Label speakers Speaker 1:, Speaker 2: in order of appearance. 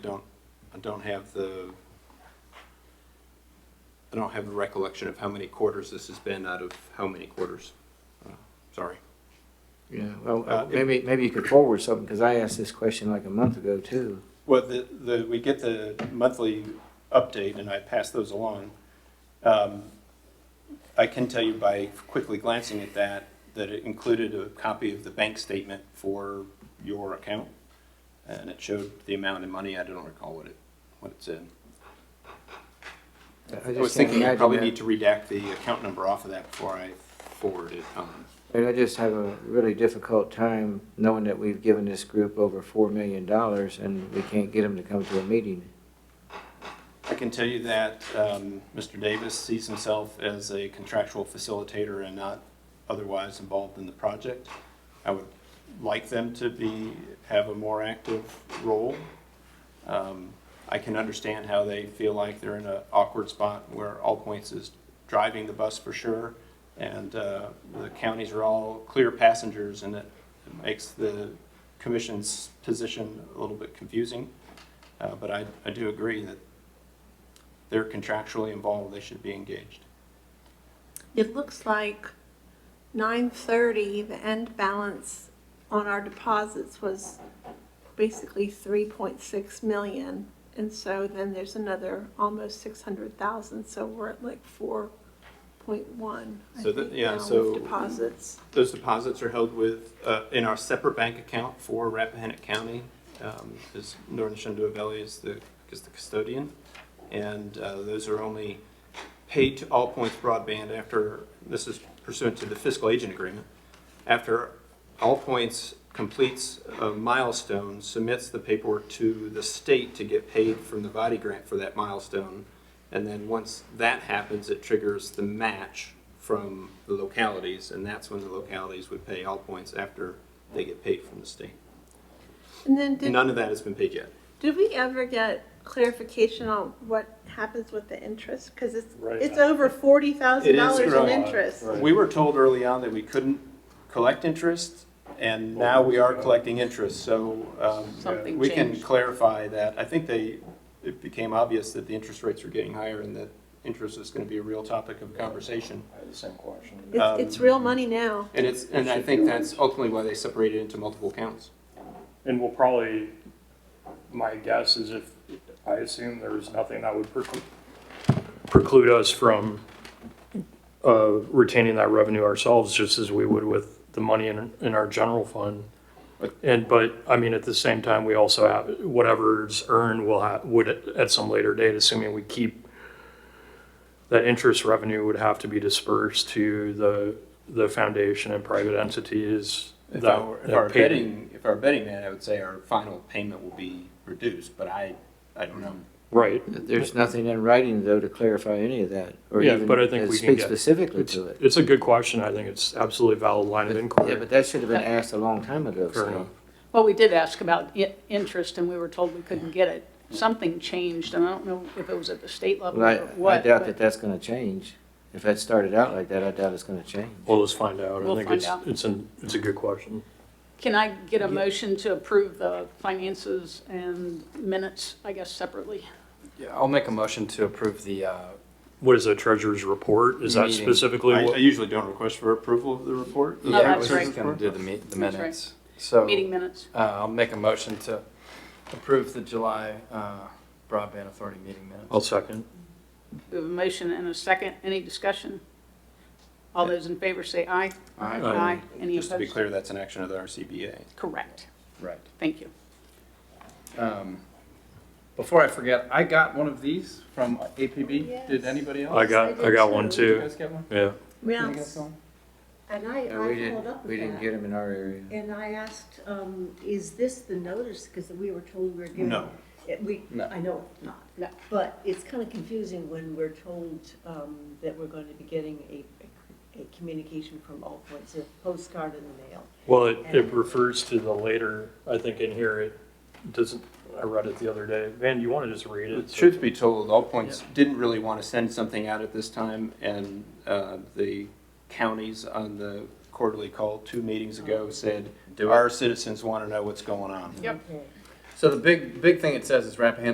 Speaker 1: don't, I don't have the, I don't have the recollection of how many quarters this has been out of how many quarters. Uh, Sorry.
Speaker 2: Yeah, well,
Speaker 1: Uh,
Speaker 2: uh,
Speaker 1: it-
Speaker 2: maybe, maybe you could forward something, because I asked this question like a month ago too.
Speaker 1: Well, the, the, we get the monthly update and I pass those along. Um, I can tell you by quickly glancing at that, that it included a copy of the bank statement for your account. And it showed the amount of money. I don't recall what it, what it said.
Speaker 2: I
Speaker 1: I was
Speaker 2: just can't
Speaker 1: thinking I
Speaker 2: imagine
Speaker 1: probably need
Speaker 2: that.
Speaker 1: to redact the account number off of that before I forward it um, on.
Speaker 2: And I just have a really difficult time knowing that we've given this group over four million dollars and we can't get them to come to a meeting.
Speaker 1: I can tell you that um, Mr. Davis sees himself as a contractual facilitator and not otherwise involved in the project. I would like them to be, have a more active role. Um, I can understand how they feel like they're in an awkward spot where All Points is driving the bus for sure, and uh, the counties are all clear passengers, and it makes the commission's position a little bit confusing. Uh, But I, I do agree that they're contractually involved, they should be engaged.
Speaker 3: It looks like nine thirty, the end balance on our deposits was basically three point six million. And so then there's another almost six hundred thousand, so we're at like four point one.
Speaker 1: So that- yeah, so-
Speaker 3: Deposits.
Speaker 1: Those deposits are held with, uh, in our separate bank account for Rappahannock County, um, is Northern Shenandoah Valley is the, is the custodian. And, uh, those are only paid to All Points Broadband after, this is pursuant to the fiscal agent agreement. After All Points completes a milestone, submits the paperwork to the state to get paid from the body grant for that milestone. And then once that happens, it triggers the match from the localities, and that's when the localities would pay all points after they get paid from the state.
Speaker 3: And then did,
Speaker 1: None of that has been paid yet.
Speaker 3: did we ever get clarification on what happens with the interest? Cause it's,
Speaker 4: Right.
Speaker 3: it's over forty thousand dollars in
Speaker 1: growing.
Speaker 3: interest.
Speaker 4: Right.
Speaker 1: We were told early on that we couldn't collect interest, and now we are collecting interest, so um,
Speaker 5: Something
Speaker 1: we can
Speaker 5: changed.
Speaker 1: clarify that. I think they, it became obvious that the interest rates were getting higher and that interest is going to be a real topic of conversation.
Speaker 4: I had the same question.
Speaker 3: It's, it's
Speaker 1: Um,
Speaker 3: real money now.
Speaker 1: And it's, and I think that's ultimately why they separated into multiple accounts.
Speaker 4: And we'll probably, my guess is if, I assume there was nothing that would preclude, preclude us from uh, retaining that revenue ourselves, just as we would with the money in, in our general fund. And, but, I mean, at the same time, we also have, whatever's earned will have, would at some later date, assuming we keep, that interest revenue would have to be dispersed to the, the foundation and private entities.
Speaker 1: If
Speaker 4: that-
Speaker 1: I were, if
Speaker 4: that
Speaker 1: I were
Speaker 4: paid-
Speaker 1: betting, if I were betting man, I would say our final payment will be reduced, but I, I don't know.
Speaker 4: Right.
Speaker 2: There's nothing in writing though to clarify any of that, or
Speaker 4: Yeah,
Speaker 2: even
Speaker 4: but I think
Speaker 2: uh,
Speaker 4: we can
Speaker 2: speak
Speaker 4: get-
Speaker 2: specifically
Speaker 4: It's,
Speaker 2: to it.
Speaker 4: it's a good question. I think it's absolutely valid line of
Speaker 2: Yeah,
Speaker 4: inquiry.
Speaker 2: but that should have been asked a long time ago,
Speaker 4: Fair
Speaker 2: so.
Speaker 4: enough.
Speaker 5: Well, we did ask about i- interest, and we were told we couldn't get it. Something changed, and I don't know if it was at the state level
Speaker 2: Well, I,
Speaker 5: or
Speaker 2: I
Speaker 5: what,
Speaker 2: doubt that
Speaker 5: but
Speaker 2: that's gonna change. If that started out like that, I doubt it's gonna change.
Speaker 4: Well, let's find out. I
Speaker 5: We'll
Speaker 4: think
Speaker 5: find
Speaker 4: it's,
Speaker 5: out.
Speaker 4: it's an, it's a good question.
Speaker 5: can I get a motion to approve the finances and minutes, I guess, separately?
Speaker 6: Yeah, I'll make a motion to approve the, uh,
Speaker 4: What is the treasurer's report? Is that
Speaker 6: Meeting.
Speaker 4: specifically
Speaker 1: I, I
Speaker 4: what?
Speaker 1: usually don't request for approval of the report.
Speaker 5: Yeah,
Speaker 6: yeah, I
Speaker 5: Oh, that's
Speaker 6: was
Speaker 5: right.
Speaker 6: just gonna do the me, the
Speaker 5: That's right.
Speaker 6: minutes.
Speaker 2: Oh.
Speaker 6: So,
Speaker 5: Meeting minutes.
Speaker 6: uh, I'll make a motion to approve the July, uh, broadband authority meeting minutes.
Speaker 4: I'll second.
Speaker 5: We have a motion and a second. Any discussion? All those in favor say aye.
Speaker 6: Aye.
Speaker 5: Aye. Any
Speaker 1: Just to be
Speaker 5: opposed?
Speaker 1: clear, that's an action of the RCBA.
Speaker 5: Correct.
Speaker 6: Right.
Speaker 5: Thank you.
Speaker 6: Um, before I forget, I got one of these from APB.
Speaker 3: Yes.
Speaker 6: Did anybody else?
Speaker 4: I got, I got one
Speaker 6: Did you
Speaker 4: too.
Speaker 6: guys get one?
Speaker 4: Yeah.
Speaker 6: Did you
Speaker 3: Yeah.
Speaker 6: guys get one?
Speaker 7: And I,
Speaker 2: No,
Speaker 7: I
Speaker 2: we
Speaker 7: followed
Speaker 2: didn't,
Speaker 7: up
Speaker 2: we
Speaker 7: with
Speaker 2: didn't
Speaker 7: that.
Speaker 2: get them in our area.
Speaker 7: And I asked, um, is this the notice? Because we were told we were given.
Speaker 1: No.
Speaker 7: It- We,
Speaker 6: No.
Speaker 7: I know it's not.
Speaker 5: No.
Speaker 7: But it's kind of confusing when we're told, um, that we're going to be getting a, a communication from All Points, a postcard in the mail.
Speaker 4: Well, it, it refers to the later, I think in here, it doesn't, I read it the other day. Van, you want to just read it?
Speaker 1: Truth be told, All Points didn't really want to send something out at this time, and uh, the counties on the quarterly call two meetings ago said, do our citizens want to know what's going on?
Speaker 5: Yep.
Speaker 7: Okay.
Speaker 6: So the big, big thing it says is Rappahannock